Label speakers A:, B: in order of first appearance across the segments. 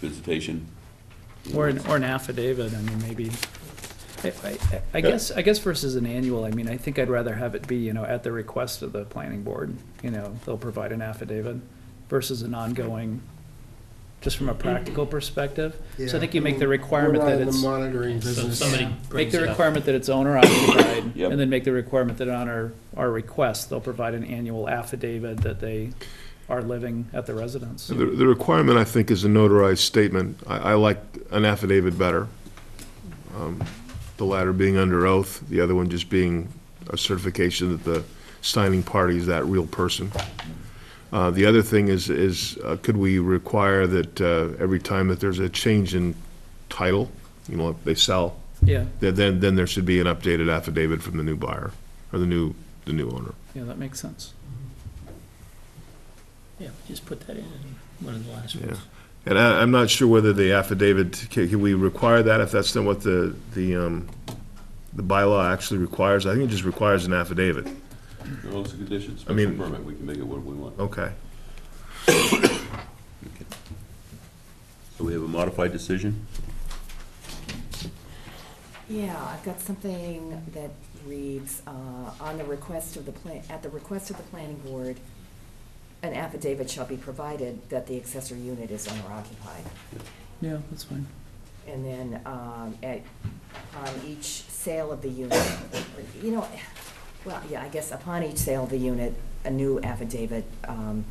A: visitation.
B: Or an, or an affidavit, I mean, maybe, I, I, I guess, I guess versus an annual, I mean, I think I'd rather have it be, you know, at the request of the planning board, you know, they'll provide an affidavit versus an ongoing, just from a practical perspective. So I think you make the requirement that it's,
C: We're not in the monitoring
D: So
C: business.
D: somebody
B: make
D: brings
B: the
D: it up.
B: requirement that it's owner occupied,
A: Yep.
B: and then make the requirement that on our, our request, they'll provide an annual affidavit that they are living at the residence.
E: The, the requirement, I think, is a notarized statement. I, I like an affidavit better. Um, The latter being under oath, the other one just being a certification that the signing party is that real person. Uh, the other thing is, is uh, could we require that, uh, every time that there's a change in title, you know, if they sell,
B: Yeah,
E: that then, then there should be an updated affidavit from the new buyer, or the new, the new owner.
B: yeah, that makes sense.
D: Yeah, just put that in, in one of the last ones.
E: And I, I'm not sure whether the affidavit, can, can we require that if that's not what the, the, um, the bylaw actually requires? I think it just requires an affidavit.
A: Those are conditions,
E: I
A: special
E: mean-
A: permit, we can make it what we want.
E: Okay.
A: So we have a modified decision?
F: Yeah, I've got something that reads, uh, on the request of the plan, at the request of the planning board, an affidavit shall be provided that the accessory unit is owner occupied.
B: Yeah, that's fine.
F: And then, um, at, on each sale of the unit, you know, well, yeah, I guess upon each sale of the unit, a new affidavit, um,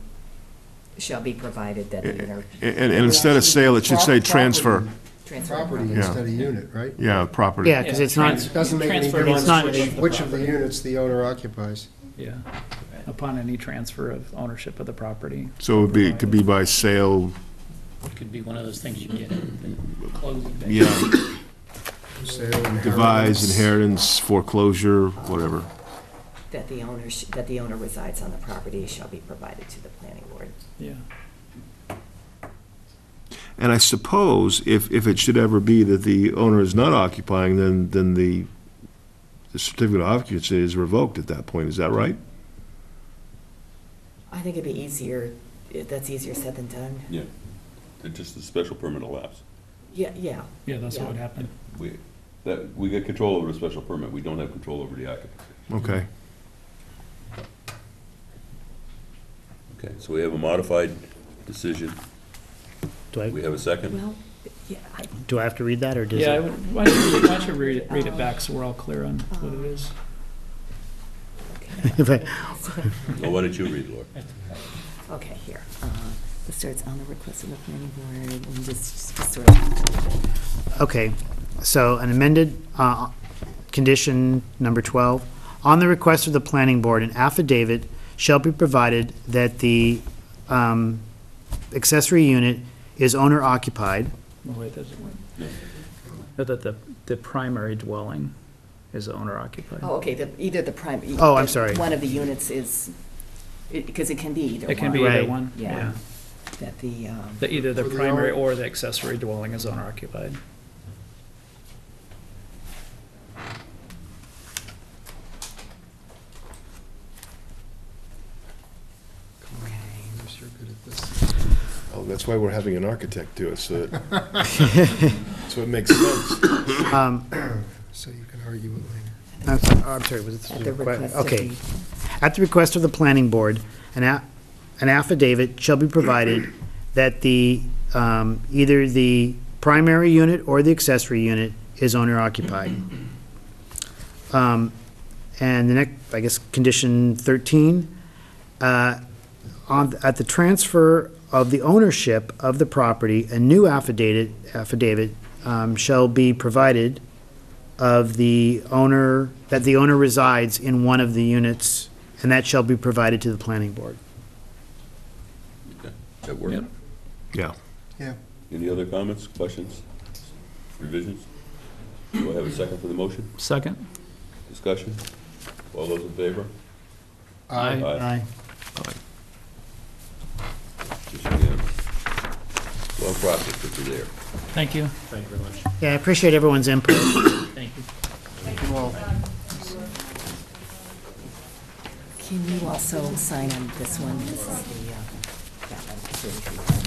F: shall be provided that the owner.
E: And, and instead of sale, it should say
F: Prop-
E: transfer,
F: Transfer. of
C: Property
F: property.
E: Yeah.
C: instead of unit, right?
E: yeah, property.
G: Yeah, because it's not,
C: Doesn't make any
D: Transfer belongs
C: difference
D: to
C: which,
D: the
C: which of the
D: property.
C: units the owner occupies.
B: Yeah, upon any transfer of ownership of the property.
E: So it would be, it could be by sale,
D: It could be one of those things you get, the closing. thing.
E: yeah,
C: Sale, inheritance.
E: devise, inheritance, foreclosure, whatever.
F: That the owner, sh- that the owner resides on the property shall be provided to the planning board.
B: Yeah.
E: And I suppose if, if it should ever be that the owner is not occupying, then, then the the certificate of occupancy is revoked at that point, is that right?
F: I think it'd be easier, eh, that's easier said than done.
A: Yeah. They're Just the special permit elapsed.
F: Yeah, yeah,
B: Yeah, that's what would happen.
A: We, that, we got control over the special permit, we don't have control over the occupancy.
E: Okay.
A: Okay, so we have a modified decision.
G: do I,
A: We have a second?
F: well, yeah, I,
G: do I have to read that, or does
B: Yeah, I
G: it?
B: would, why don't you, why don't you read it, read it back so we're all clear on what it is?
G: if I-
A: Well, why don't you read, Laura?
F: okay, here. Uh, This starts on the request of the planning board, and just, just sort of,
G: Okay, so an amended, uh, condition number 12. On the request of the planning board, an affidavit shall be provided that the um, accessory unit is owner occupied.
B: No, Oh, wait, that doesn't work. That- That the, the primary dwelling is owner occupied.
F: oh, okay, the, either the prime. e-
G: Oh, I'm sorry.
F: One of the units is, because it can be either one.
B: It can be either
G: Right.
B: one,
F: Yeah.
B: yeah.
F: That the, um,
B: That either the
C: Or the
B: primary
C: owner-
B: or the accessory dwelling is owner occupied.
C: You're good at this.
E: Oh, that's why we're having an architect do it, so that, so it makes sense.
G: Um,
C: So you can argue it later.
G: I'm sorry, oh, I'm sorry, was
F: at the
G: it?
F: request of
G: Okay.
F: the,
G: At the request of the planning board, an a- an affidavit shall be provided that the, um, either the primary unit or the accessory unit is owner occupied. Um, And the next, I guess, condition 13, uh, on, at the transfer of the ownership of the property, a new affidavit, affidavit um, shall be provided of the owner, that the owner resides in one of the units, and that shall be provided to the planning board.
A: Okay, That worked?
B: Yep.
E: Yeah.
C: Yeah.
A: Any other comments, questions, revisions? Do I have a second for the motion?
B: Second?
A: Discussion? All those in favor?
B: Aye.
A: Just unanimous. Well, processed if you're there.
B: Thank you.
D: Thank you very much.
G: Yeah, I appreciate everyone's input.
D: Thank you.
F: can you also sign on this one? This is the, uh, that one.